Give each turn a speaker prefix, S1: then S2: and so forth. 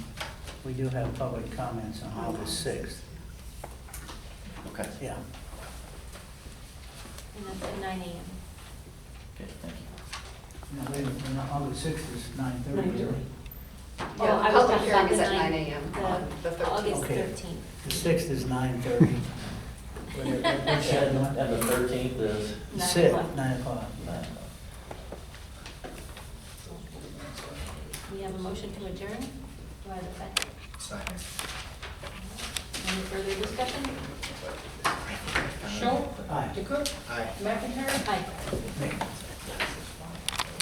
S1: We do have public comments on August 6th,
S2: Okay,
S1: yeah.
S3: And that's at nine AM.
S2: okay, thank you.
S1: No, wait a minute, no, August 6th is 9:30. isn't it?
S3: Oh,
S4: Yeah,
S3: I was
S4: public
S3: talking
S4: hearing
S3: about
S4: is
S3: the
S4: at
S3: nine-
S4: 9 a.m.
S3: the-
S4: on Uh-huh. the 13th.
S3: August
S1: Okay.
S3: thirteenth.
S1: The 6th is 9:30. Whatever, what's the other one?
S2: And the thirteenth is?
S1: The
S3: Nine
S1: 6th,
S3: o'clock.
S1: 9 o'clock.
S2: nine.
S3: We have a motion to adjourn. Do I have a second?
S5: Second.
S3: Any further discussion?
S2: Uh,
S6: Schultz?
S1: Aye.
S6: DeCook?
S5: Aye.
S6: McIntyre?
S3: Aye.
S1: Nick.